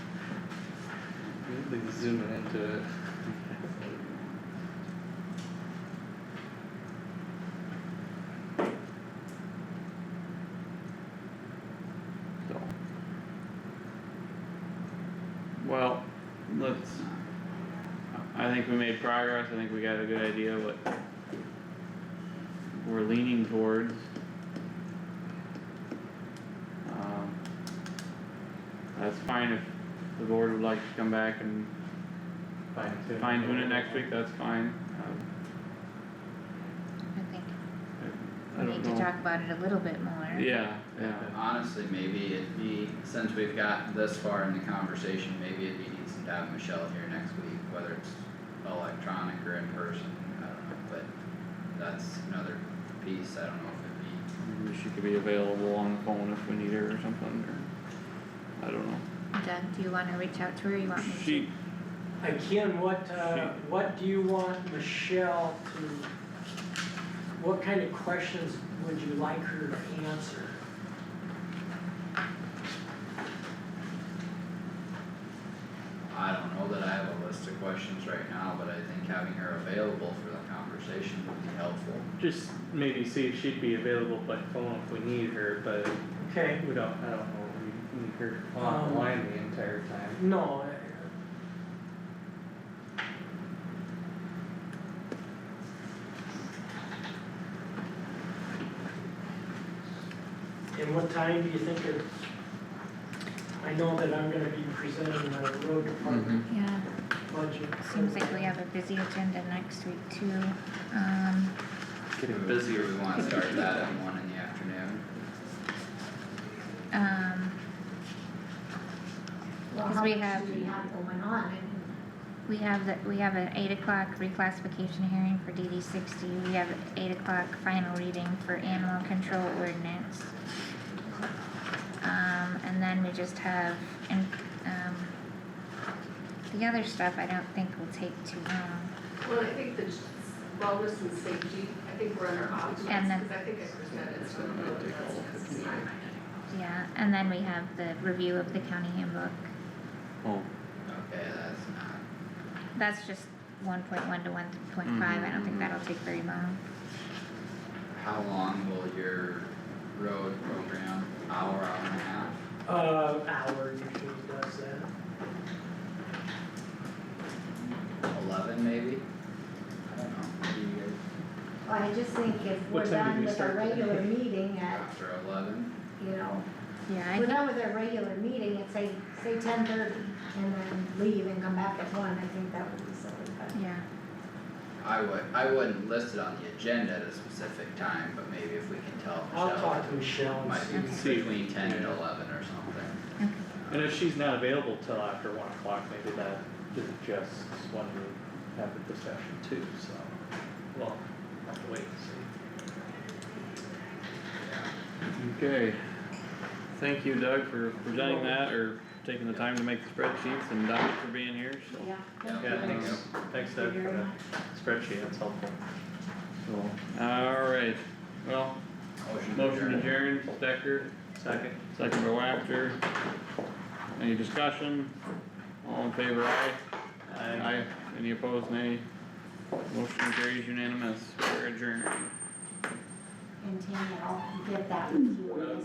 He's zooming into it. So. Well, let's, I think we made progress, I think we got a good idea what we're leaning towards. Um, That's fine if the board would like to come back and Fine tune. fine tune it next week, that's fine. Um, I think I we don't need to know. talk about it a little bit more. Yeah, yeah, Honestly, maybe it'd be, since we've got this far in the conversation, maybe it'd be decent to have Michelle here next week, whether it's electronic or in person, I don't know, but that's another piece, I don't know if it'd be, maybe she could be available on the phone if we need her or something, or, I don't know. Doug, do you wanna reach out to her, or you want me to? She, Again, what, uh, She- what do you want Michelle to, what kind of questions would you like her to answer? I don't know that I have a list of questions right now, but I think having her available for the conversation would be helpful. Just maybe see if she'd be available by phone if we need her, but Okay. we don't, I don't know, if we need her Um, online the entire time. No. uh, I- And what time do you think it's, I know that I'm gonna be presenting the road department Yeah, budget. seems like we have a busy agenda next week too, um, Getting Busier, we wanna start that at one in the afternoon. um, Well, Because how we much have- do we have going on? I mean, we have the, we have an eight o'clock reclassification hearing for DD sixty, we have eight o'clock final reading for animal control ordinance. Um, and then we just have, and, um, the other stuff I don't think will take too long. Well, I think the wellness and safety, I think we're under options, And then- cause I think I presented some of those, that's, Yeah, and then we have the review of the county handbook. oh, Okay, that's not, That's just one point one to one point five, I don't think that'll take very long. how long will your road program, hour, hour and a half? Uh, hour usually does that. eleven maybe? I don't know, maybe you Well, I just think if What time we're did done we with our start today? regular meeting guys, at, after eleven, you know, Yeah, if I we're think, done with our regular meeting at say, say ten thirty, and then leave and come back at one, I think that would be silly, but. yeah, I would, I wouldn't list it on the agenda at a specific time, but maybe if we can tell I'll Michelle, talk to Michelle it and might see. be See. between ten and Yeah. eleven or something. okay, And if she's not available till after one o'clock, maybe that is just when we have the discussion too, so. Well, I'll have to wait and okay. Thank you Doug for presenting that, or taking the time to make the spreadsheets, and Doc for being here, so. Yeah. Yeah. see. Yeah, thanks, thanks Doug for the spreadsheet, that's helpful. So, alright, well, Motion to motion adjourn. adjourned, Stecker, Second? second by Wactor. Any discussion? All in favor, aye? Aye. Any opposed, nay? Motion carries unanimous, we're adjourned. And Tammy, I'll get that with you.